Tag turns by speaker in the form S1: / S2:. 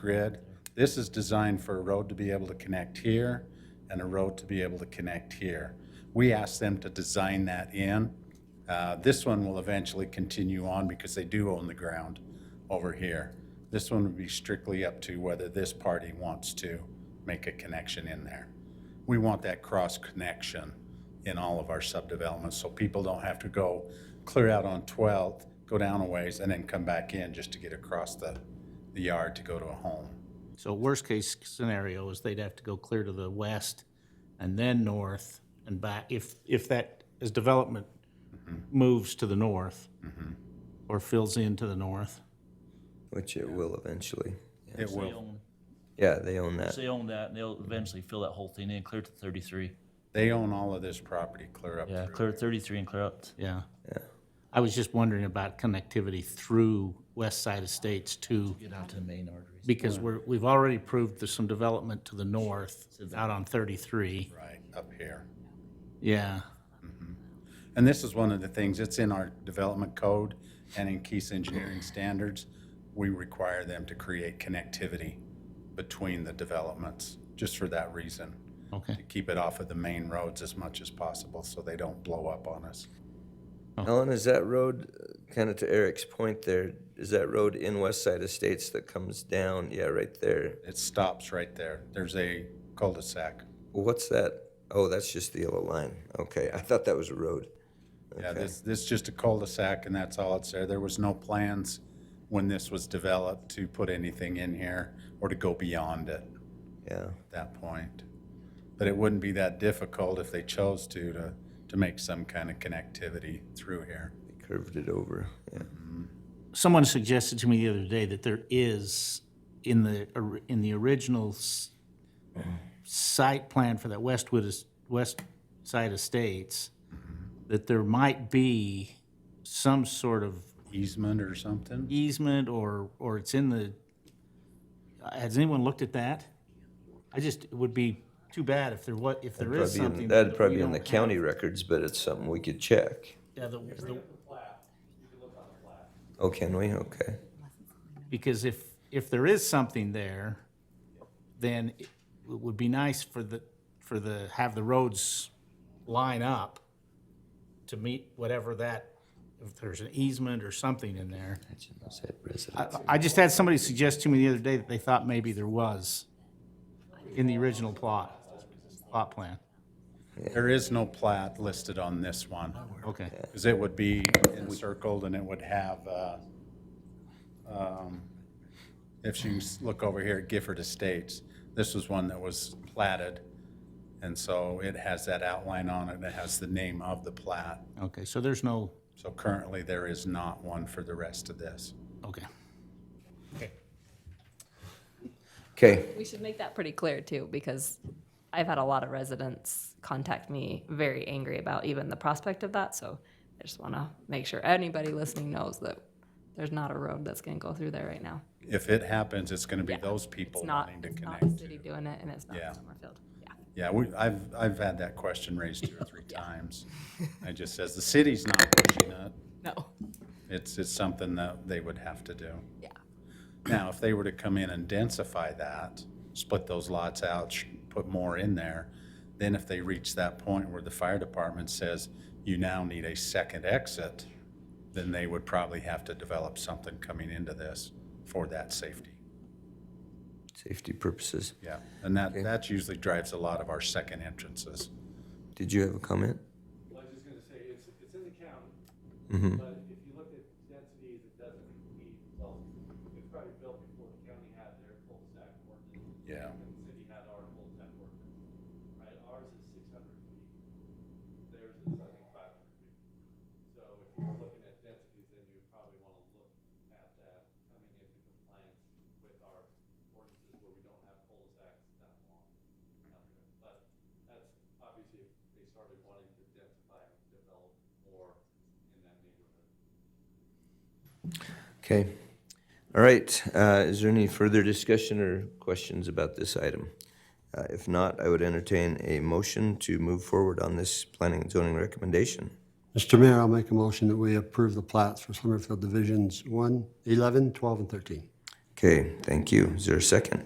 S1: grid. This is designed for a road to be able to connect here and a road to be able to connect here. We asked them to design that in. Uh, This one will eventually continue on because they do own the ground over here. This one would be strictly up to whether this party wants to make a connection in there. We want that cross connection in all of our subdevelopments, so people don't have to go clear out on 12th, go down a ways, and then come back in just to get across the, the yard to go to a home.
S2: So worst-case scenario is they'd have to go clear to the west and then north and back, if, if that, as development moves to the north or fills in to the north.
S3: Which it will eventually. Yeah.
S1: It
S4: They
S1: will,
S4: own,
S3: Yeah, they own that.
S4: they own that, and they'll eventually fill that whole thing in, clear to thirty-three.
S1: they own all of this property clear up
S4: Yeah,
S1: through.
S4: clear to thirty-three and clear up. t-
S2: Yeah. I was just wondering about connectivity through west side estates to,
S4: Get out to the main arteries.
S2: because we're, we've already proved there's some development to the north out on 33.
S1: Right, up here.
S2: Yeah.
S1: And this is one of the things, it's in our development code and in Keith's engineering standards. We require them to create connectivity between the developments, just for that reason.
S2: Okay.
S1: To keep it off of the main roads as much as possible, so they don't blow up on us.
S3: Ellen, is that road, kind of to Eric's point there, is that road in West Side Estates that comes down? Yeah, right there.
S1: It stops right there. There's a cul-de-sac.
S3: What's that? Oh, that's just the yellow line. Okay, I thought that was a road.
S1: Yeah,
S3: Okay.
S1: this, this is just a cul-de-sac and that's all it's there. There was no plans when this was developed to put anything in here or to go beyond it
S3: Yeah.
S1: at that point. But it wouldn't be that difficult if they chose to, to, to make some kind of connectivity through here.
S3: They curved it over. Yeah.
S2: Someone suggested to me the other day that there is, in the, or- in the original s- site plan for that Westwood, es- West Side Estates, that there might be some sort of
S1: Easement or something?
S2: easement or, or it's in the, has anyone looked at that? I just, it would be too bad if there was, if there is
S3: Probably in-
S2: something.
S3: that'd
S2: that
S3: probably
S2: we
S3: be in the
S2: don't have.
S3: county records, but it's something we could check.
S2: Yeah, the- the-
S3: Oh, can we? Okay.
S2: Because if, if there is something there, then it would be nice for the, for the, have the roads line up to meet whatever that, if there's an easement or something in there.
S3: Is that
S2: I,
S3: resident?
S2: I just had somebody suggest to me the other day that they thought maybe there was in the original plot, plot plan.
S1: There is no plat listed on this one.
S2: Okay,
S1: Because it would be encircled and it would have, uh, um, if you s- look over here at Gifford Estates, this was one that was platted. And so it has that outline on it, and it has the name of the plat.
S2: okay, so there's no,
S1: So currently, there is not one for the rest of this.
S2: okay.
S3: Okay.
S5: We should make that pretty clear too, because I've had a lot of residents contact me very angry about even the prospect of that, so I just wanna make sure anybody listening knows that there's not a road that's gonna go through there right now.
S1: If it happens, it's gonna be those
S5: It's
S1: people
S5: not,
S1: wanting to
S5: it's not the
S1: connect.
S5: city doing it, and it's not
S1: Yeah.
S5: Summerfield, yeah.
S1: Yeah, we, I've, I've had that question raised two or three times. I just says, the city's not pushing it.
S5: No.
S1: It's, it's something that they would have to do.
S5: Yeah.
S1: Now, if they were to come in and densify that, split those lots out, sh- put more in there, then if they reach that point where the fire department says, you now need a second exit, then they would probably have to develop something coming into this for that safety.
S3: Safety purposes.
S1: Yeah, and that, that usually drives a lot of our second entrances.
S3: Did you have a comment?
S6: Well, I was just gonna say, it's, it's in the county,
S3: Mm-hmm.
S6: but if you look at densities, it doesn't meet, well, it's probably built before the county had their cul-de-sac ordinance,
S1: Yeah.
S6: and the city had our cul-de-sac ordinance, right? Ours is six hundred feet, theirs is, I think, five hundred feet. So if you're looking at densities, then you would probably wanna look at that coming into compliance with our ordinances where we don't have cul-de-sacs that long. out there. But that's obviously if they started wanting to densify and develop more in that neighborhood.
S3: Okay. All right. Uh, is there any further discussion or questions about this item? Uh, if not, I would entertain a motion to move forward on this planning and zoning recommendation.
S7: Mr. Mayor, I'll make a motion that we approve the plats for Summerfield Divisions 1, 11, 12, and 13.
S3: Okay, thank you. Is there a second?